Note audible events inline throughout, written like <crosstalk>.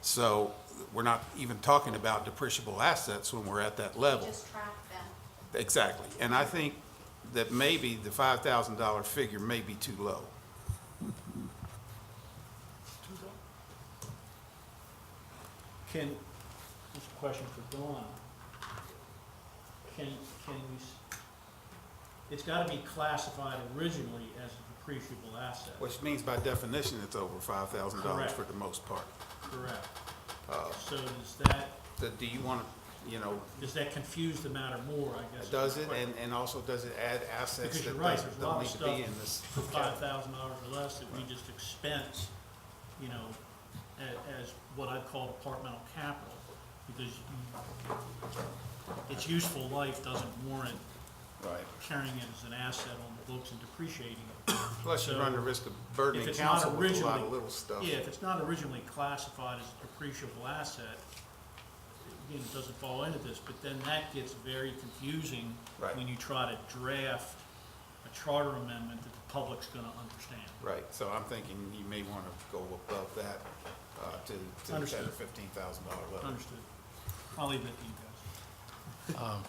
So we're not even talking about depreciable assets when we're at that level. Just track them. Exactly. And I think that maybe the $5,000 figure may be too low. Can, this is a question for Dawn. Can, can we, s- it's gotta be classified originally as a depreciable asset, Which means by definition, it's over five thousand dollars for Correct. the most part. correct? Uh. So does that, So do you want to, you know, does that confuse the matter more, I guess? is does the it, and, and also does it add assets Because that you're right, doesn't- there's a lot don't of need to be stuff in this? for five thousand dollars or less that we just expense, you know, a- as what I call departmental capital, because you- its useful life doesn't warrant Right. carrying it as an asset on the books and depreciating it. Plus you run the So, risk of If burdening it's not council with a lot originally, of little stuff. yeah, if it's not originally classified as a depreciable asset, it, again, it doesn't fall into this, but then that gets very confusing Right. when you try to draft a charter amendment that the public's gonna understand. Right, so I'm thinking you may want to go above that, uh, to, to the ten or Understood. fifteen thousand dollar level. Understood. I'll leave it to you guys.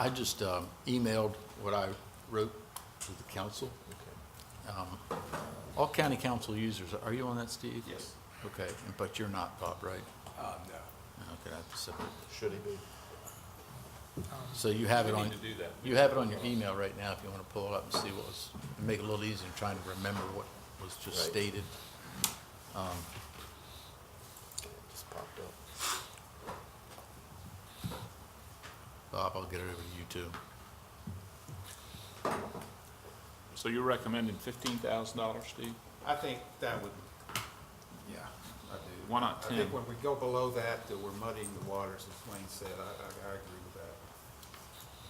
I just um, emailed what I wrote to the council. Um, All county council users, are you on that, Steve? Yes. Okay, but you're not, Bob, right? Uh, no. Okay, that's separate. Should he be? So you have it We on, need to do that. you have it on your email right now if you want to pull it up and see what was, and make it a little easier in trying to remember what was just Right. stated. Just popped up. Bob, I'll get it over to you too. So you're recommending fifteen thousand dollars, Steve? I think that would, yeah, I do. Why not I think 10? when we go below that, that we're muddying the waters, as Wayne said, I, I, I agree with that.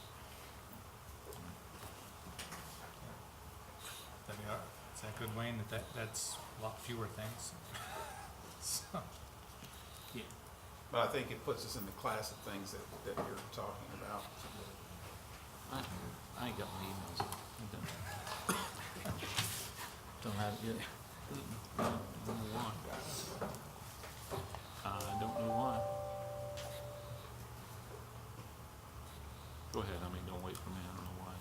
I mean, uh, is that good, Wayne, that, that that's a lot fewer things? So, Yeah. But I think it puts us in the class of things that, that you're talking about. I I ain't got my emails. I don't- Don't have it yet. I don't know why. I don't know why. Go ahead, I mean, don't wait for me, I don't know why.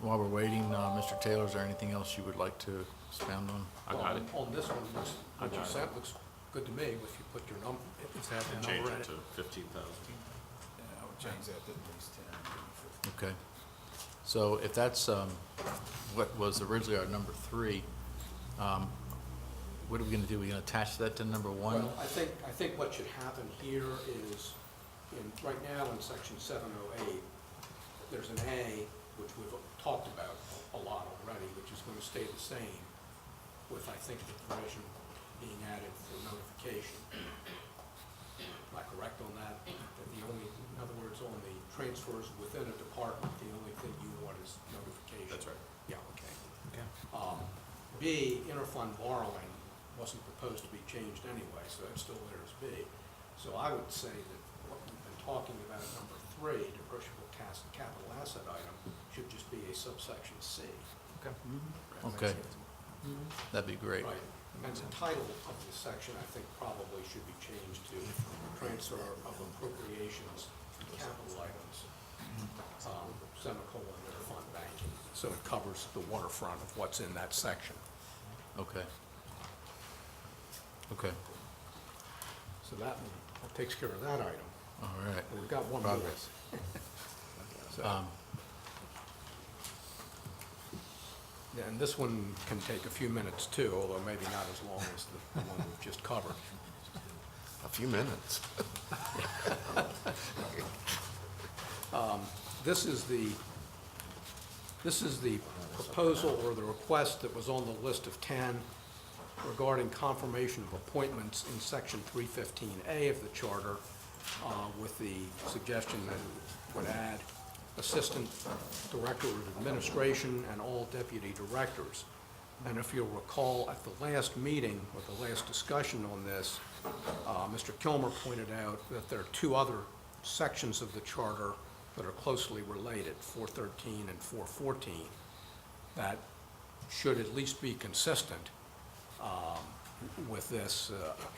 While we're waiting, uh, Mr. Taylor, is there anything else you would like to expound on? I got it. On this one, looks, I what you got it. sent looks good to me, if you put your number, if it's had the Change number in it it. to fifteen thousand. Yeah, I would change that to at least ten, maybe Okay. So if that's um, what was originally our number three, um, what are we going to do? we going to attach that to number one? Well, I think, I think what should happen here is, in, right now in section seven oh eight, there's an A, which we've talked about a lot already, which is gonna stay the same, with, I think, the provision being added for notification. Am I correct on that? That the only, in other words, on the transfers within a department, the only thing you want is notification? That's right. Yeah, okay. okay. Um, B, interfund borrowing wasn't proposed to be changed anyway, so that's still there as B. So I would say that what we've been talking about, at number three, depreciable cas- capital asset item, should just be a subsection C. Okay, that'd be great. Right, and the title of this section, I think, probably should be changed to transfer of appropriations from capital items, um, semicolon, interfund banking. So it covers the waterfront of what's in that section. Okay. Okay, So that one that takes care of that item. all right. We've got one more. Progress. <laughs> So, Um, And this one can take a few minutes too, although maybe not as long as the the one we've just covered. A few <laughs> minutes. Um, This is the, this is the proposal or the request that was on the list of 10 regarding confirmation of appointments in Section 315A of the Charter uh, with the suggestion that it would add Assistant Director of Administration and all deputy directors. And if you'll recall, at the last meeting or the last discussion on this, uh, Mr. Kilmer pointed out that there are two other sections of the charter that are closely related, 413 and 414, that should at least be consistent um, with this. uh,